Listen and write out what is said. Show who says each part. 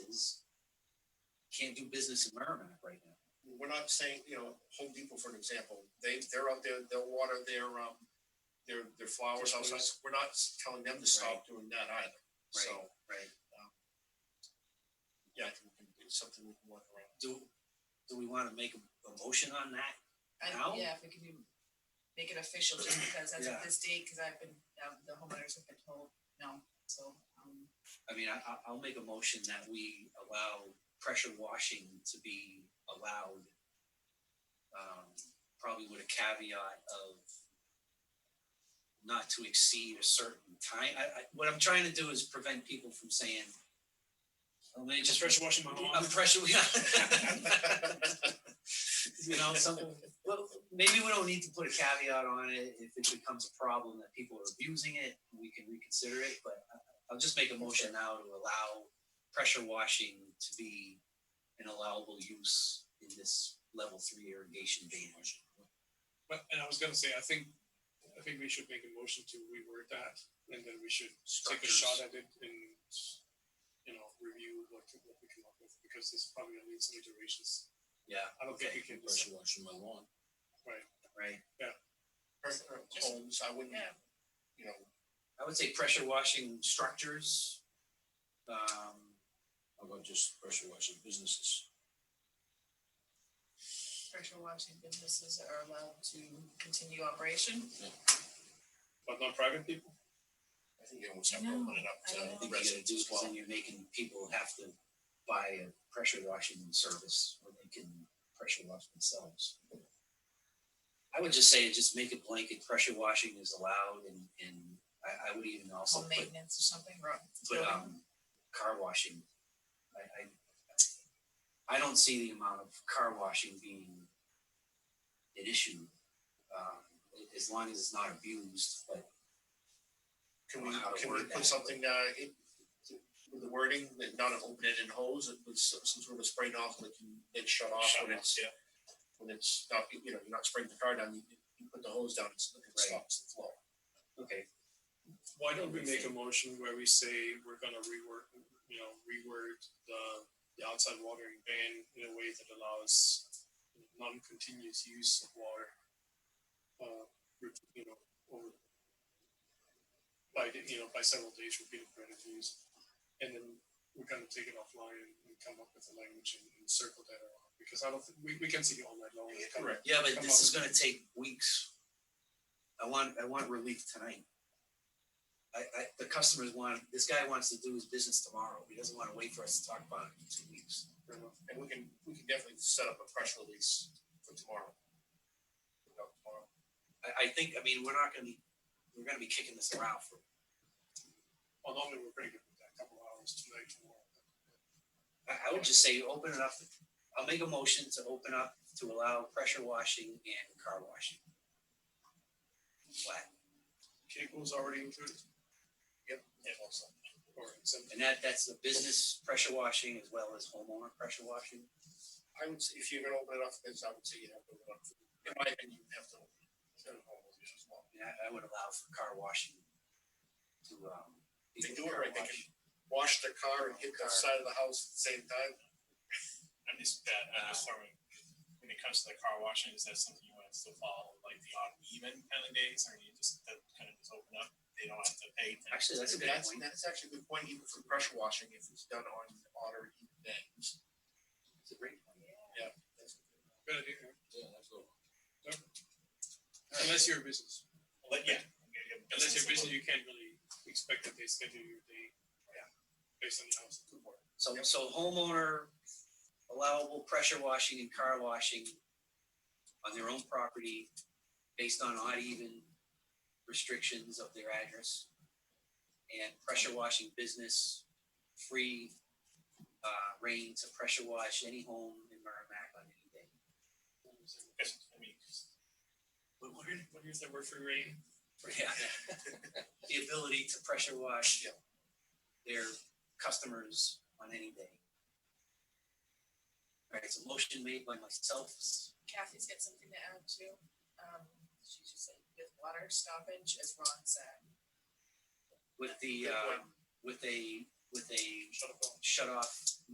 Speaker 1: can't do business in Merrimack right now.
Speaker 2: we're not saying, you know, Home Depot, for an example, they, they're out there, they'll water their, um, their, their flowers outside. We're not s- telling them to stop doing that either. So,
Speaker 1: Right.
Speaker 2: yeah, I think we can- it's something we can work around.
Speaker 1: Do, do we wanna make a, a motion on that?
Speaker 3: I-
Speaker 1: Now?
Speaker 3: Yeah, if we can do, make it official, just because that's
Speaker 1: Yeah.
Speaker 3: what this date, because I've been, uh, the homeowners have been told, no, so, um,
Speaker 1: I mean, I, I- I'll make a motion that we allow pressure washing to be allowed. Um, probably with a caveat of not to exceed a certain time. I, I, what I'm trying to do is prevent people from saying, oh, man, just
Speaker 4: Just pressure washing my
Speaker 1: I'm
Speaker 4: lawn.
Speaker 1: pressure, you know, something, well, maybe we don't need to put a caveat on it, if it becomes a problem that people are abusing it, we can reconsider it, but I- I'll just make a motion now to allow pressure washing to be an allowable use in this level three irrigation ban.
Speaker 4: But, and I was gonna say, I think, I think we should make a motion to reword that, and then we should take a shot at it and, you know, review what, what we come up with, because this probably gonna need some iterations.
Speaker 1: Yeah,
Speaker 4: I don't think we can, just-
Speaker 5: pressure washing my lawn.
Speaker 1: right,
Speaker 2: Her- her uh, Homes, I wouldn't,
Speaker 3: yeah,
Speaker 2: you know,
Speaker 1: I would say pressure washing structures. Um,
Speaker 5: How about just pressure washing businesses?
Speaker 3: pressure washing businesses are allowed to continue operation.
Speaker 4: but not private people,
Speaker 2: I think you almost have to open it up
Speaker 3: I don't
Speaker 1: I
Speaker 3: know.
Speaker 2: to
Speaker 1: think you gotta do,
Speaker 2: residents as
Speaker 1: cause
Speaker 2: well.
Speaker 1: then you're making people have to buy a pressure washing service, or they can pressure wash themselves. I would just say, just make it blanket, pressure washing is allowed, and, and I, I would even also
Speaker 3: Home
Speaker 1: put,
Speaker 3: maintenance or something, right?
Speaker 1: put, um, car washing. I, I, I don't see the amount of car washing being an issue, um, a- as long as it's not abused, but
Speaker 2: Can we,
Speaker 1: Wow, how to
Speaker 2: can we
Speaker 1: word that.
Speaker 2: put something, uh, in, with the wording, that not an open ended hose, it was some some sort of spray nozzle that can, that shut off
Speaker 4: Shut
Speaker 2: when
Speaker 4: off,
Speaker 2: it's.
Speaker 4: yeah.
Speaker 2: When it's not, you know, you're not spraying the car down, you, you put the hose down, it's, it stops the flow.
Speaker 1: okay,
Speaker 4: why don't we make a motion where we say we're gonna rework, you know, reword the, the outside watering ban in a way that allows non-continuous use of water, uh, re- you know, over by, the- you know, by several days repeated credit use, and then we're gonna take it offline and, and come up with a language and, and circle that around, because I don't, think- we, we can see it all night long. Come-
Speaker 2: Correct.
Speaker 1: Yeah, but
Speaker 4: Come
Speaker 1: this
Speaker 4: on.
Speaker 1: is gonna take weeks. I want, I want relief tonight. I, I, the customers want, this guy wants to do his business tomorrow. He doesn't wanna wait for us to talk about it in two weeks.
Speaker 2: And we can, we can definitely set up a press release for tomorrow. You know, tomorrow.
Speaker 1: I, I think, I mean, we're not gonna be, we're gonna be kicking this around for,
Speaker 4: Well, normally we're pretty good with that, couple hours tonight tomorrow.
Speaker 1: I, I would just say, open it up. I'll make a motion to open up to allow pressure washing and car washing. Flat.
Speaker 4: Cable's already included,
Speaker 2: And also,
Speaker 4: or it's in-
Speaker 1: And that, that's the business pressure washing as well as homeowner pressure washing.
Speaker 2: I would, say if you're gonna open it up, then I would say you have to, open it up. in my opinion, you have to. open it up. Set up all those issues as well.
Speaker 1: I mean, I, I would allow for car washing to, um.
Speaker 2: They
Speaker 1: people
Speaker 2: do it
Speaker 1: car
Speaker 2: right, they
Speaker 1: wash.
Speaker 2: Wash the car and hit the
Speaker 1: Car.
Speaker 2: side of the house at the same time.
Speaker 6: I'm just that uh, I'm just throwing when it comes to the car washing, is that something you want to still follow like the odd even kind of days or you just that kind of just open up? They don't have to pay attention.
Speaker 1: Actually, that's a good
Speaker 2: That's,
Speaker 1: point.
Speaker 2: that's actually a good point, even for pressure washing, if it's done on hotter heat days.
Speaker 1: That's a great point.
Speaker 2: That's-
Speaker 4: Good idea.
Speaker 5: Yeah, that's all.
Speaker 4: Unless you're a business,
Speaker 6: But yeah. you have
Speaker 4: unless you're a business,
Speaker 6: business-
Speaker 4: you can't really expect that they schedule your day.
Speaker 1: Yeah.
Speaker 4: Based on the house. Good work.
Speaker 1: So, so homeowner allowable pressure washing and car washing on their own property based on odd even restrictions of their address. And pressure washing business, free, uh, reign to pressure wash any home in Merrimack on any day.
Speaker 6: Because, I mean, 'cause- what what is- what is that word for rate?
Speaker 1: Yeah. The ability to pressure wash
Speaker 2: Yeah.
Speaker 1: their customers on any day. Alright, it's a motion made by myself.
Speaker 3: Kathy's got something to add too, um, she just said with water stoppage, as Ron said.
Speaker 1: um, with the, uh, with a, with a
Speaker 2: Shut up.
Speaker 1: shut off